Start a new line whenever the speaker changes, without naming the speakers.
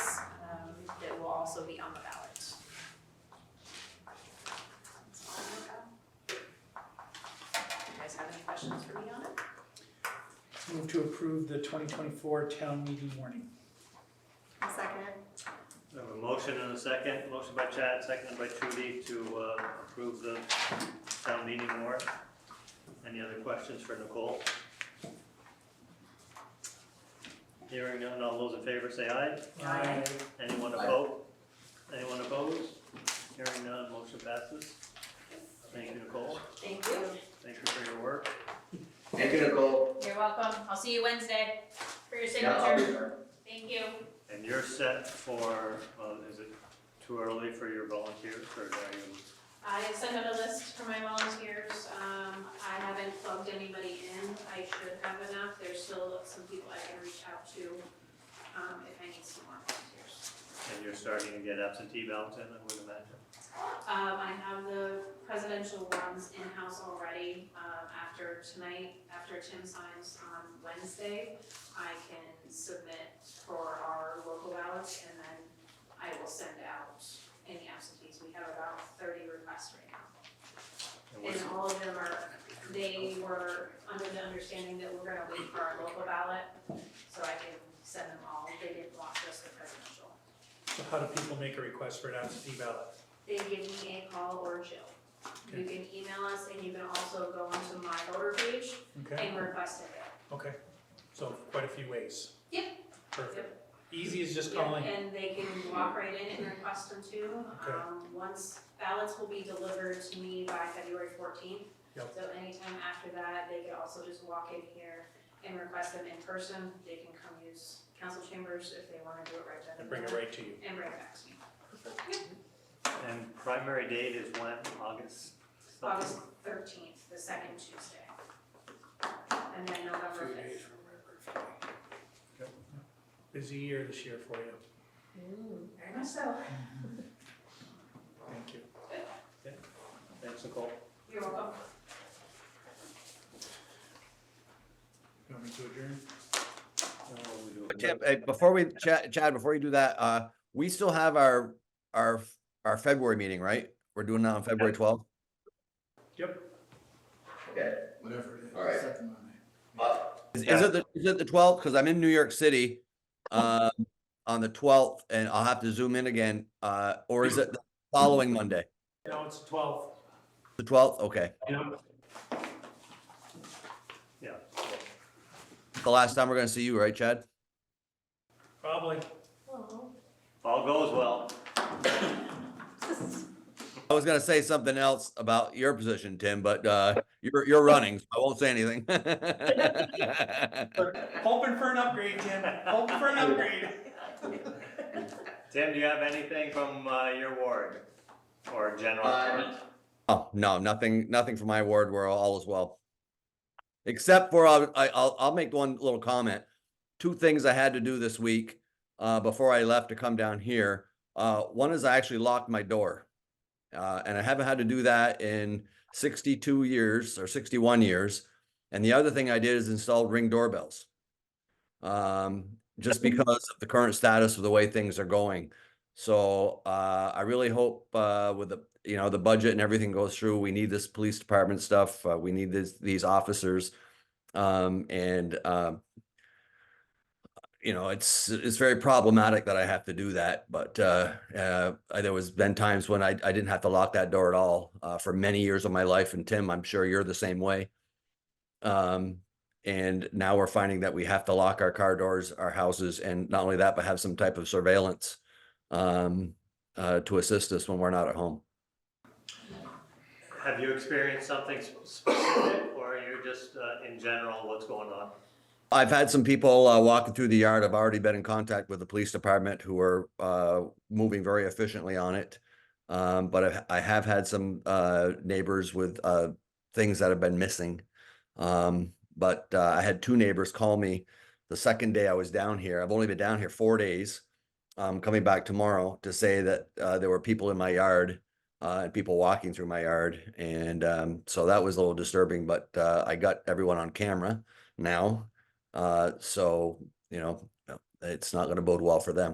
Um, also be on the ballot. That's all I got. You guys have any questions for me on it?
Move to approve the 2024 town meeting warning.
Second.
We have a motion and a second, motion by Chad, seconded by Trudy to uh, approve the town meeting warrant. Any other questions for Nicole? Hearing none, all those in favor say aye.
Aye.
Anyone
Aye.
opposed? Anyone opposed? Hearing none, motion passes. Thank you, Nicole.
Thank you.
Thank you for your work.
Thank you, Nicole.
You're welcome. I'll see you Wednesday for your
Yeah, I'll be
signature.
there.
Thank you.
And you're set for, well, is it too early for your volunteers or are you?
I sent out a list for my volunteers, um, I haven't plugged anybody in, I should have enough, there's still some people I can reach out to, um, if I need some more volunteers.
And you're starting to get absentee ballots in, I would imagine?
Um, I have the presidential ones in-house already, um, after tonight, after Tim signs on Wednesday, I can submit for our local ballots, and then I will send out any absentees, we have about thirty requests right now.
And
And
what's-
all of them are, they were under the understanding that we're gonna wait for our local ballot, so I can send them all, they didn't want just the presidential.
So how do people make a request for an absentee ballot?
They give me a call or Jill. You can email us and you can also go onto my voter page
Okay,
and request it.
okay. So quite a few ways.
Yep.
Perfect. Easy is just calling.
Yeah, And they can walk right in and request them too.
Okay.
Um, once ballots will be delivered to me by February fourteenth.
Yep.
So anytime after that, they could also just walk in here and request them in person. They can come use council chambers if they wanna do it right then
I
and
bring it
there,
right to you.
And bring it back to me.
And primary date is when, August? something?
August thirteenth, the second Tuesday. And then November
Two days
fifth.
from my birthday.
Busy year this year for you.
Very much so.
Thank you.
Thanks, Nicole.
You're welcome.
You want me to adjourn?
Tim, uh, before we, Chad, Chad, before you do that, uh, we still have our, our, our February meeting, right? We're doing that on February twelfth?
Okay,
Whatever it is.
All right.
Second Monday.
uh,
Is is it the, is it the twelfth? Cause I'm in New York City, uh, on the twelfth and I'll have to zoom in again. Uh, or is it the following Monday?
No, it's 12.
The twelfth? Okay.
Yeah.
The last time we're gonna see you, right, Chad?
Probably.
All goes well.
I was gonna say something else about your position, Tim, but, uh, you're, you're running, so I won't say anything.
Hoping for an upgrade, Tim. Hoping for an upgrade.
Tim, do you have anything from uh, your ward or general?
Uh,
Oh, no, nothing, nothing from my ward. We're all is well. Except for, I'll- I, I'll, I'll make one little comment. Two things I had to do this week, uh, before I left to come down here. Uh, one is I actually locked my door. Uh, and I haven't had to do that in sixty-two years or sixty-one years. And the other thing I did is installed ring doorbells. Um, just because of the current status of the way things are going. So uh, I really hope uh, with the you know the budget and everything goes through, we need this police department stuff. Uh, we need this, these officers, um, and um, you know it's it's very problematic that I have to do that. But uh, uh, I- there was been times when I I didn't have to lock that door at all uh, for many years of my life. And Tim, I'm sure you're the same way. Um, and now we're finding that we have to lock our car doors, our houses, and not only that, but have some type of surveillance um, uh, to assist us when we're not at home.
Have you experienced something s- specific or are you just uh, in general, what's going on?
I've had some people uh, walking through the yard. I've already been in contact with the police department who are uh, moving very efficiently on it. Um, but I've, I have had some uh, neighbors with uh, things that have been missing. Um, but uh, I had two neighbors call me the second day I was down here. I've only been down here four days. I'm coming back tomorrow to say that uh, there were people in my yard uh, and people walking through my yard. And um, so that was a little disturbing, but uh, I got everyone on camera now. Uh, so, you know, it's not going to bode well for them.